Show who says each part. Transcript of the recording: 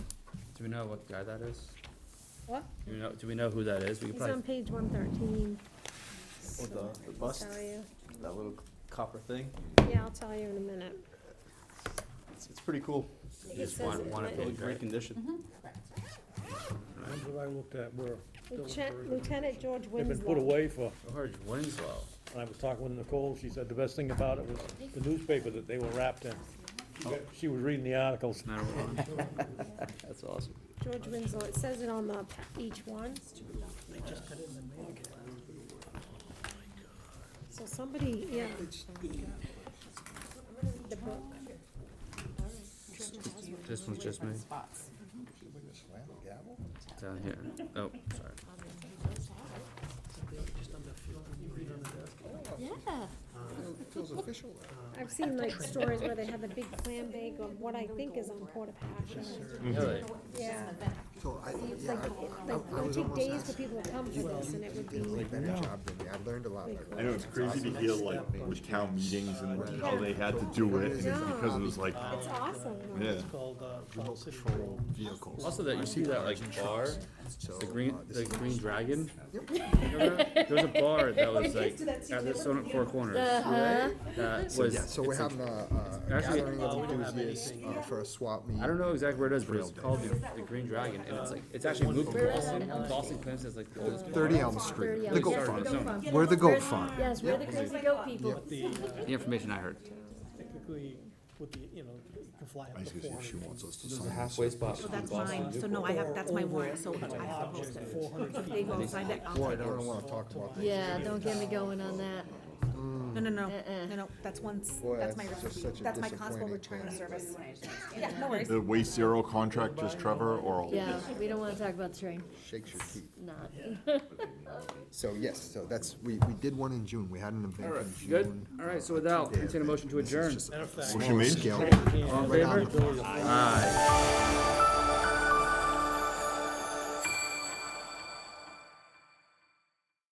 Speaker 1: Do we know what guy that is?
Speaker 2: What?
Speaker 1: Do we know, do we know who that is? We could
Speaker 2: He's on
Speaker 1: probably, Oh,
Speaker 2: page one thirteen.
Speaker 3: Or the- the bust?
Speaker 2: Tell you,
Speaker 3: That little copper thing,
Speaker 2: yeah, I'll tell you in a minute.
Speaker 3: it's, it's pretty cool,
Speaker 2: It
Speaker 1: just
Speaker 2: says
Speaker 1: one,
Speaker 2: it
Speaker 1: one
Speaker 2: right-
Speaker 1: of
Speaker 3: really
Speaker 1: these,
Speaker 3: great
Speaker 1: right?
Speaker 3: condition.
Speaker 4: The ones that I looked at were, still in
Speaker 2: Lieutenant-
Speaker 4: very good
Speaker 2: Lieutenant George
Speaker 4: they've been put
Speaker 2: Winslow.
Speaker 4: away for,
Speaker 1: George Oh, Winslow.
Speaker 4: when I was talking with Nicole, she said the best thing about it was the newspaper that they were wrapped in. She got- She was reading the articles.
Speaker 1: Not a one.
Speaker 3: That's awesome.
Speaker 2: George Winslow, it says it on the, pa- each one. So somebody, yeah. The book.
Speaker 1: This one's just me,
Speaker 5: spots.
Speaker 1: down here. Oh, sorry.
Speaker 5: Yeah.
Speaker 2: I've seen like stories where they have the big clam bake of what I think is on porta passion.
Speaker 1: Really?
Speaker 2: Yeah.
Speaker 6: So I,
Speaker 2: It's
Speaker 6: yeah,
Speaker 2: like,
Speaker 6: I,
Speaker 2: like, it would take days for people to come for this, and it would be,
Speaker 6: like better job than me. I learned a lot.
Speaker 7: I know, it's crazy to hear like with town meetings and how they had to do it, and it's because it was like,
Speaker 2: it's awesome.
Speaker 7: yeah.
Speaker 4: Called, uh,
Speaker 6: Remote control vehicles.
Speaker 1: Also that, you see that like bar,
Speaker 6: So,
Speaker 1: the green,
Speaker 6: uh, this
Speaker 1: the
Speaker 6: is-
Speaker 1: green dragon? Remember that? There was a bar that was like, at the Sonnet Four Corners. That was,
Speaker 6: Yeah, Uh-huh. so we're
Speaker 1: it's a-
Speaker 6: having a, uh, a
Speaker 1: actually-
Speaker 6: gathering of enthusiasts uh, for a swap meet.
Speaker 1: I don't know exactly where it is, but it's called the, the Green Dragon, and it's like, it's actually moved to Boston, and Boston claims it's like the oldest bar.
Speaker 6: Thirty Elm Street, the goat
Speaker 1: Sorry,
Speaker 6: farm.
Speaker 1: no, no,
Speaker 6: We're the goat farm.
Speaker 2: Yes, we're the crazy goat people.
Speaker 1: The information I heard.
Speaker 4: Typically, with the, you know, you can fly up
Speaker 7: Basically, if she wants us to sign
Speaker 1: Halfway spot.
Speaker 5: So that's mine, so no, I have, that's my warrant, so I have to post it. If they both sign it, I'll
Speaker 6: Boy, I
Speaker 5: take it.
Speaker 6: don't wanna talk about that.
Speaker 8: Yeah, don't get me going on that.
Speaker 5: No, no, no,
Speaker 8: Uh-uh.
Speaker 5: no, no, that's once,
Speaker 6: Boy,
Speaker 5: that's my
Speaker 6: that's just
Speaker 5: recipe,
Speaker 6: such a
Speaker 5: that's my constable
Speaker 6: disappointing
Speaker 5: return
Speaker 6: thing.
Speaker 5: service. Yeah, no worries.
Speaker 7: the waste zero contract, just Trevor or all of
Speaker 8: Yeah,
Speaker 7: us?
Speaker 8: we don't wanna talk about the train,
Speaker 6: Shakes your teeth.
Speaker 8: not.
Speaker 6: So yes, so that's, we, we did one in June. We had an event in June.
Speaker 1: Good, alright, so without, entertain a motion to adjourn.
Speaker 6: Just a
Speaker 7: Motion made?
Speaker 6: Scale.
Speaker 1: All in
Speaker 6: Right on
Speaker 1: favor?
Speaker 6: the-
Speaker 1: Aye.